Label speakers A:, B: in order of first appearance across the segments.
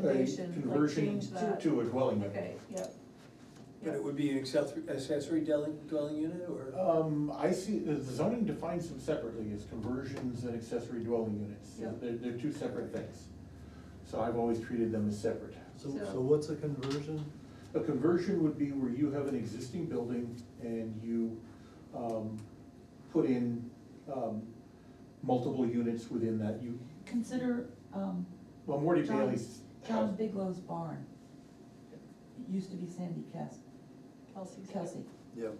A: recommendation, like
B: conversion
A: change that.
B: to a dwelling unit.
A: Okay, yep.
C: But it would be an accessory, accessory dwelling, dwelling unit or?
B: Um, I see, the zoning defines them separately as conversions and accessory dwelling units.
A: Yeah.
B: They're, they're two separate things. So I've always treated them as separate.
D: So,
A: So-
D: so what's a conversion?
B: A conversion would be where you have an existing building and you, um, put in, um, multiple units within that. You,
E: Consider, um,
B: well, Morty
E: John-
B: Bailey's.
E: John Bigelow's barn. It Used to be Sandy Kes-
A: Kelsey's.
E: Kelsey.
D: Yep.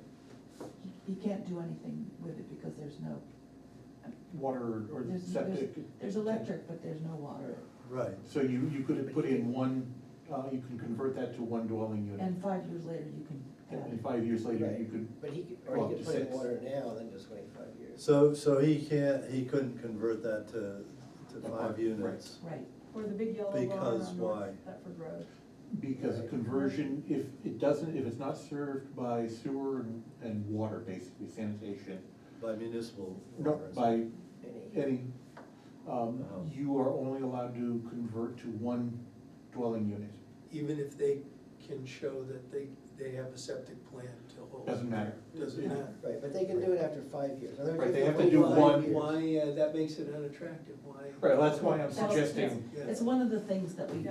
E: He, he can't do anything with it because there's no,
B: Water or
E: there's, there's,
B: septic.
E: there's electric, but there's no water.
B: Right.
D: Right,
B: So you, you could put in one, uh, you can convert that to one dwelling unit.
E: And five years later, you can have
B: And
E: it.
B: five years later, you
F: Right.
B: could,
F: But he could,
B: Well,
F: or he
B: to
F: could put in
B: six.
F: water now, and then just wait five years.
D: so, so he can't, he couldn't convert that to, to
B: Apartment,
D: five units.
E: Right,
A: Or the big yellow barn
D: Because
A: on North
D: why?
A: Thetford Road.
B: because a
F: Right.
B: conversion, if it doesn't, if it's not served by sewer and, and water, basically sanitation,
D: By municipal.
B: no,
D: waters.
B: by
F: Any-
B: any, um,
D: Uh-huh.
B: you are only allowed to convert to one dwelling unit.
C: Even if they can show that they, they have a septic plan to hold?
B: Doesn't matter.
C: Doesn't matter.
F: Right, but they can do it after five years. In other words,
B: Right, they have to
F: wait
B: do
F: five
B: one-
F: years.
C: Why, uh, that makes it unattractive, why?
B: Right, that's why I'm
A: That's- yes.
B: suggesting,
C: Yeah.
E: it's one of the things that we
A: Yeah,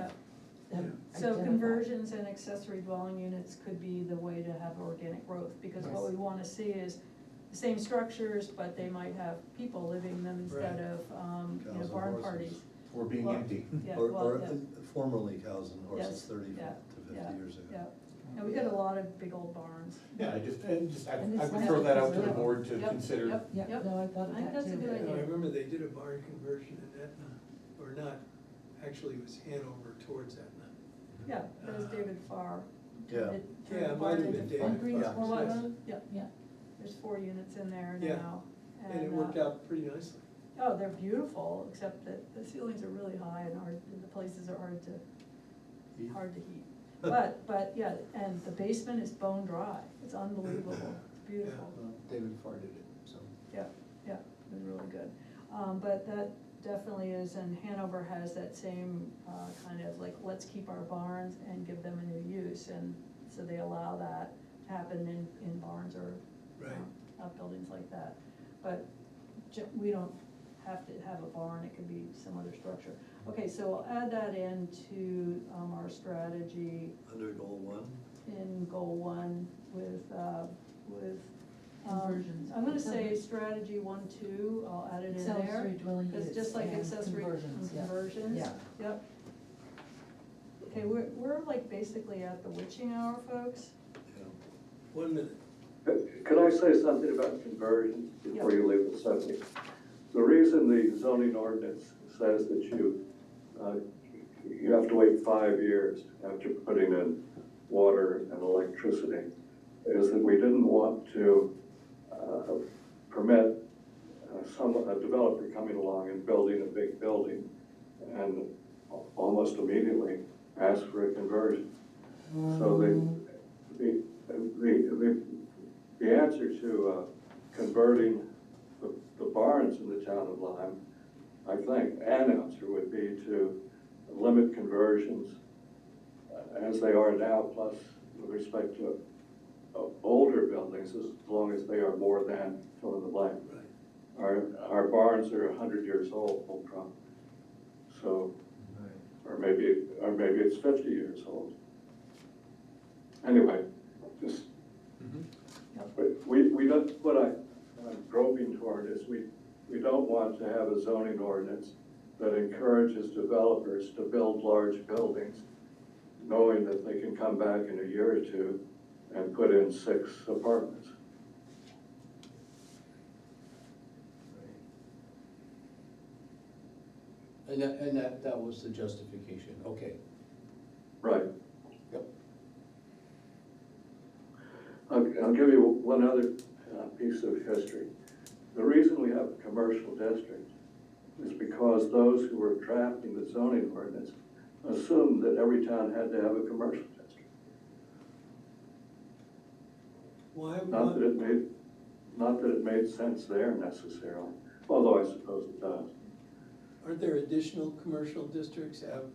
E: have
A: so
E: identified.
A: conversions and accessory dwelling units could be the way to have organic growth, because what
E: Yes.
A: we wanna see is the same structures, but they might have people living in them instead
C: Right.
A: of, um, you know,
D: Cows and
A: barn
D: horses.
A: parties.
B: for being
A: Well-
B: empty.
A: Yeah,
D: Or,
A: well,
D: or
A: yeah,
D: formerly cows and horses
A: Yes,
D: thirty
A: yeah,
D: to
A: yeah,
D: fifty years ago.
A: yeah, and we got a lot of big old barns.
B: Yeah, I just, I just, I
E: And
B: I
E: it's
B: would
E: not
B: throw that out to
E: because
B: the
E: of-
B: board to
A: Yep,
B: consider.
A: Yep,
E: Yeah,
A: yep,
E: no, I thought
A: I
E: of
A: think
E: that
A: that's a good
E: too.
C: You know, I
A: idea.
C: remember they did a barn conversion in Etna, or not, actually it was Hanover towards Etna.
A: yeah, that was David Farr.
D: Yeah.
A: Did-
C: Yeah, it might have been
A: Did-
C: David
B: uh,
E: Green's
C: Farr,
A: Or what,
C: yes.
A: yeah,
E: Yeah,
A: there's four units in there
C: Yeah.
A: now.
C: And it
A: uh,
C: worked out pretty nicely.
A: Oh, they're beautiful, except that the ceilings are really high and hard, and the places are hard to,
D: Heat.
A: hard to heat. But, but, yeah, and the basement is bone dry, it's unbelievable, it's beautiful,
F: Well, David Farr did it, so.
A: yeah, yeah, it's really good. Um, but that definitely is, and Hanover has that same, uh, kind of like, let's keep our barns and give them a new use, and so they allow that to happen in, in barns or
C: Right.
A: uh, outbuildings like that. But ju- we don't have to have a barn, it could be some other structure. Okay, so I'll add that into um, our strategy
D: Under goal one,
A: in goal one with, uh, with. um,
E: Conversions.
A: I'm gonna say strategy one, two, I'll add it in there.
E: accessory dwelling units
A: It's just like
E: and
A: accessory
E: conversions, yeah.
A: conversions.
E: Yeah.
A: Yep. Okay, we're, we're like basically at the witching hour, folks.
D: yeah.
C: One minute.
G: Could I say something about conversion before you leave the subject? The reason the zoning ordinance says that you, uh, you have to wait five years after putting in water and electricity is that we didn't want to uh, permit uh, some, a developer coming along and building a big building and al- almost immediately ask for a conversion. So the, the, the, the, the answer to uh, converting the, the barns in the town of Lyme, I think, an answer would be to limit conversions uh, as they are now, plus with respect to uh, older buildings, as long as they are more than fill in the blank.
C: Right.
G: Our, our barns are a hundred years old, no problem. So or maybe, or maybe it's fifty years old. Anyway, just,
B: Mm-hmm.
G: but we, we don't, what I, I'm groping toward is we, we don't want to have a zoning ordinance that encourages developers to build large buildings, knowing that they can come back in a year or two and put in six apartments.
H: And that, and that, that was the justification, okay.
G: Right.
H: Yep.
G: I'll, I'll give you one other uh, piece of history. The reason we have a commercial district is because those who were drafting the zoning ordinance assumed that every town had to have a commercial district.
C: Why,
G: Not that
C: why,
G: it made, not that it made sense there necessarily, although I suppose it does.
C: aren't there additional commercial districts out